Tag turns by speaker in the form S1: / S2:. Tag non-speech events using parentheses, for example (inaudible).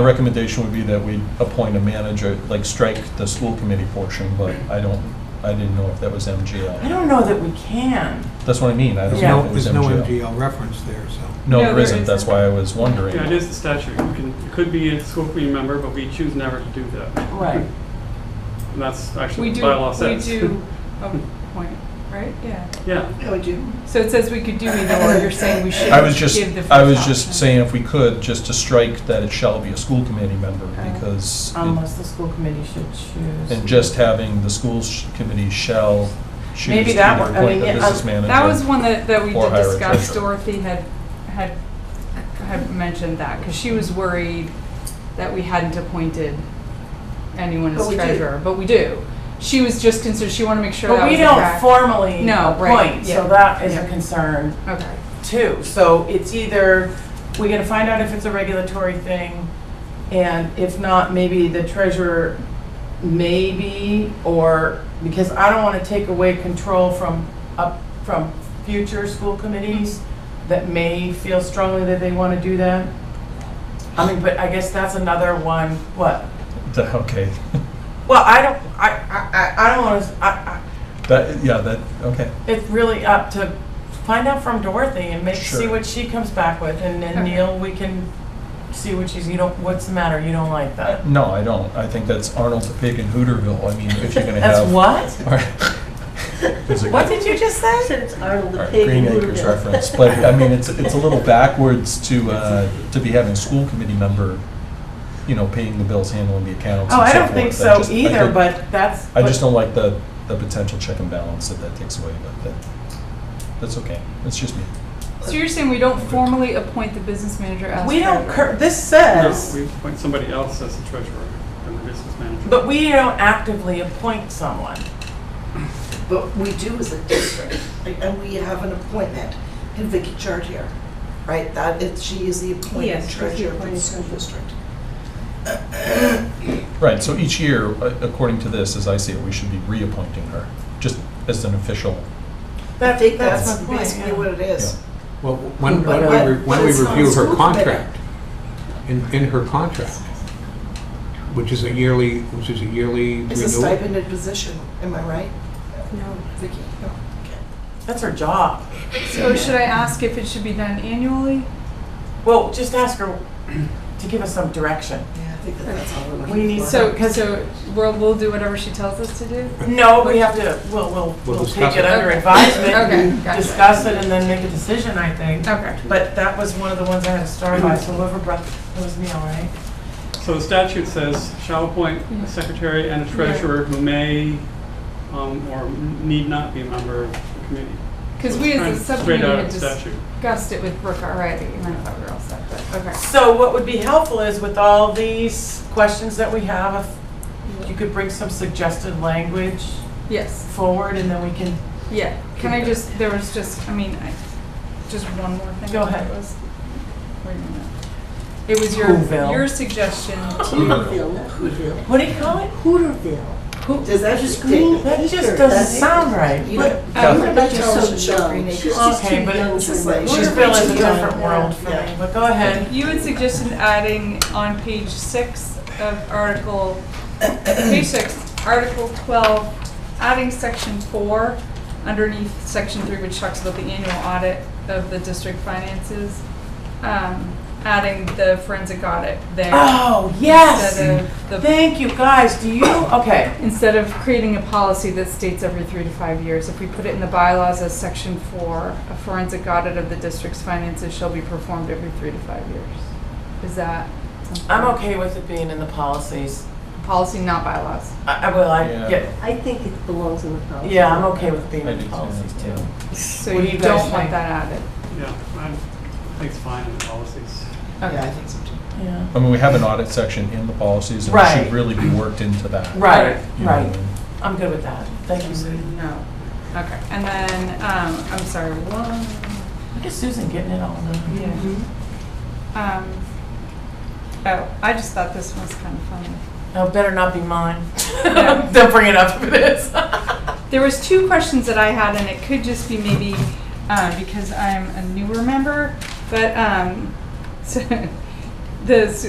S1: The recommendation would be that we appoint a manager, like strike the school committee portion, but I don't, I didn't know if that was
S2: I
S1: MGL.
S2: don't know that we can.
S1: That's what I mean, I don't
S3: There's
S1: know
S3: no,
S1: if it was
S3: there's no
S1: MGL.
S3: MGL reference there, so.
S1: No,
S4: No,
S1: there
S4: there
S1: isn't, that's
S4: isn't.
S1: why I was wondering.
S5: Yeah, it is the statute. You can, it could be a school committee member, but we choose never to do that.
S2: Right.
S5: And that's actually
S4: We
S5: what the
S4: do,
S5: bylaw
S4: we
S5: says.
S4: do appoint, right? Yeah.
S5: (laughs) Yeah,
S6: I would do.
S4: So it says we could do either or, you're saying we should
S1: I was
S4: give
S1: just,
S4: the first
S1: I was just
S4: option.
S1: saying if we could, just to strike that it shall be a school committee member,
S4: Okay.
S1: because, it-
S2: Unless the school committee should choose.
S1: and just having the schools committee shall choose
S2: Maybe
S1: to
S2: that
S1: either
S2: one- I
S1: appoint
S2: mean,
S1: the
S2: yeah,
S1: business
S2: um,
S1: manager.
S4: That was one that, that we
S1: Or
S4: did
S1: hire a
S4: discuss,
S1: treasurer.
S4: Dorothy had, had, had mentioned that, because she was worried that we hadn't appointed anyone
S6: But
S4: as
S6: we do.
S4: treasurer, but we do. She was just concerned, she wanted to make sure that
S2: But we
S4: was the
S2: don't
S4: fact.
S2: formally
S4: No, right,
S2: appoint,
S4: yeah.
S2: so that is a
S4: Yeah.
S2: concern
S4: Okay,
S2: too. So it's either, we gotta find out if it's a regulatory thing, and if not, maybe the treasurer, maybe, or, because I don't wanna take away control from, up, from future school committees that may feel strongly that they wanna do that. I mean, but I guess that's another one, what?
S1: The- Okay, (laughs)
S2: Well, I don't, I, I, I I don't wanna, I, I,
S1: that, yeah, that, okay,
S2: it's really up to find out from Dorothy and make, see
S1: Sure.
S2: what she comes back with, and then
S4: Okay.
S2: Neil, we can see what she's, you don't, what's the matter, you don't like that?
S1: no, I don't, I think that's Arnold the Pig in Hooterville, I mean, if you're gonna have.
S2: That's what?
S1: Is it-
S2: What did you just
S6: I
S2: say?
S6: said it's Arnold the
S1: Alright,
S6: Pig.
S1: Green
S6: who moved
S1: Acres
S6: it.
S1: reference, but I mean, it's,
S6: (laughs)
S1: it's a little backwards to, uh, to be having a school committee member, you know, paying the bills, handling the accounts
S2: Oh,
S1: and
S2: I
S1: so
S2: don't think
S1: forth. I
S2: so
S1: just- I
S2: either,
S1: think-
S2: but that's.
S1: I just
S2: what-
S1: don't like the, the potential check and balance that that takes away, but that, that's okay, that's just me.
S4: so you're saying we don't formally appoint the business manager as
S2: We don't,
S4: treasurer?
S2: cur- this
S5: no,
S2: says,
S5: we appoint somebody else as the treasurer and the business manager.
S2: but we don't actively appoint someone.
S6: But we do as a district, like, and we have an appointment in Vicky Chartier, right? That is, she is the appointed
S7: Yes, she's the
S6: treasurer of the
S7: appointed
S6: school district.
S1: Right, so each year, a- according to this, as I see it, we should be reappointing her, just as an official.
S6: I
S2: That-
S6: think
S2: That's
S6: that's
S2: my point,
S6: basically
S2: yeah.
S6: what it is.
S3: Well, when,
S6: But-
S3: when we, re- when
S6: but
S3: we
S6: it's not
S3: review her
S6: school
S3: contract, in, in her contract, which is a yearly, which is a yearly
S6: It's a
S3: renewal.
S6: stipended position, am I right?
S7: No.
S6: Vicky? No. Okay.
S2: That's her job.
S4: So should I ask if it should be done annually?
S2: Well, just ask her to give us some direction.
S6: Yeah, I think that that's all we're looking for.
S2: We need
S4: So, so we'll, we'll do whatever she tells us to do?
S2: No, we have to, we'll, we'll,
S3: We'll
S2: we'll
S3: discuss
S2: take it
S3: it.
S2: under
S4: Okay. Okay,
S2: advisement,
S4: gotcha.
S2: discuss it, and then make a decision, I think.
S4: Okay.
S2: But that was one of the ones I had to start by, so whoever brought, it was Neil, right?
S5: So the statute says, shall appoint a secretary and a treasurer who may um, or need not be a member of the committee.
S4: Because
S5: So
S4: we
S5: it's
S4: as
S5: kind
S4: a
S5: of
S4: subcommittee
S5: Straight out
S4: had
S5: of the statute.
S4: discussed it with Brooke already, and I thought we were all set, but, okay.
S2: So what would be helpful is with all these questions that we have, if you could bring some suggested language
S4: Yes,
S2: forward, and then we can,
S4: yeah. Can I just, there was just, I mean, I, just one more thing.
S2: Go
S4: that
S2: ahead.
S4: was- wait a minute. It was your,
S2: Whoville.
S4: your suggestion
S2: (laughs)
S4: to,
S6: Hooterville, not Hooterville.
S2: what do you call it?
S6: Hooterville. Does that just green?
S2: That just doesn't sound right.
S6: You know,
S1: Yeah.
S6: I'm not so dumb. She's just
S2: Okay,
S6: too
S2: but
S6: young to like.
S2: She's
S6: She's way
S2: Hooterville is
S6: too
S2: a
S6: young.
S2: different world for me,
S6: Yeah.
S2: but go ahead.
S4: you had suggested adding on page six of article, page six, article twelve, adding section four underneath section three, which talks about the annual audit of the district finances. Um, adding the forensic audit there.
S2: Oh, yes!
S4: Instead of the-
S2: Thank you, guys, do you, okay.
S4: Instead of creating a policy that states every three to five years, if we put it in the bylaws as section four, a forensic audit of the district's finances shall be performed every three to five years. Is that? something-
S2: I'm okay with it being in the policies.
S4: Policy, not bylaws.
S2: I, I will,
S1: Yeah.
S2: I, yeah,
S7: I think it belongs in the policy.
S2: yeah, I'm okay with being
S1: I
S2: in
S1: do
S2: the
S1: too.
S2: policies too.
S4: So
S2: What do
S4: you
S2: you guys
S4: don't want
S2: think?
S4: that added.
S5: Yeah, I think it's fine in the policies.
S6: Yeah, I think so too.
S2: Yeah.
S1: I mean, we have an audit section in the policies, and it
S2: Right.
S1: should really be worked into that.
S2: Right,
S1: you know,
S2: right,
S1: and-
S2: I'm good with that, thank you, Susan.
S4: No. Okay, and then, um, I'm sorry, one,
S2: Look at Susan getting it all done.
S4: yeah. Um, oh, I just thought this one's kind of funny.
S2: No, Oh, better not be mine.
S4: No.
S2: (laughs) Don't bring it up for this. (laughs)
S4: There was two questions that I had, and it could just be maybe uh, because I'm a newer member, but um, so, (laughs) the s-